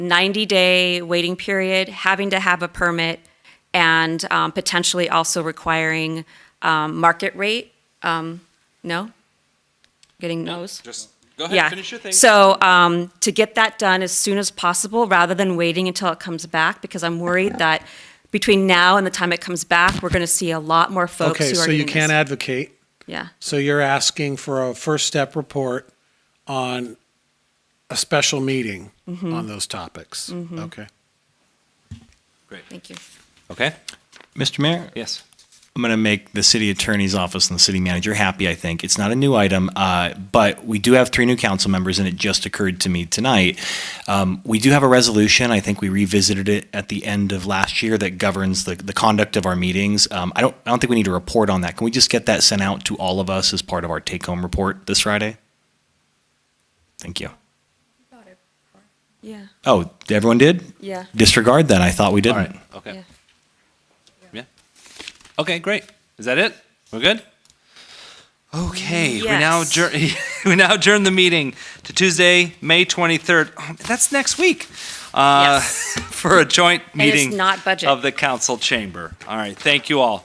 90 day waiting period, having to have a permit, and um, potentially also requiring um, market rate. Um, no? Getting no's? Just go ahead, Yeah. finish your thing. So um, to get that done as soon as possible, rather than waiting until it comes back, because I'm worried that between now and the time it comes back, we're going to see a lot more folks who are Okay, doing so you this. can't advocate. Yeah, So you're asking for a first step report on a special meeting Mm-hmm. on those topics. Okay. thank you. Okay, Mr. Mayor, yes. I'm going to make the city attorney's office and the city manager happy, I think. It's not a new item, uh, but we do have three new council members, and it just occurred to me tonight. Um, we do have a resolution. I think we revisited it at the end of last year that governs the, the conduct of our meetings. Um, I don't, I don't think we need to report on that. Can we just get that sent out to all of us as part of our take-home report this Friday? Thank you. Yeah, Oh, everyone did? yeah, Disregard that. I thought All we didn't. right, yeah. okay, yeah. Okay, great. Is that it? We're good? Okay, we now Yes. adjourn, we now adjourn the meeting to Tuesday, May 23rd. Oh, That's next week. uh, Yes. For a joint And it's meeting not budget. of the council chamber. All right, thank you all.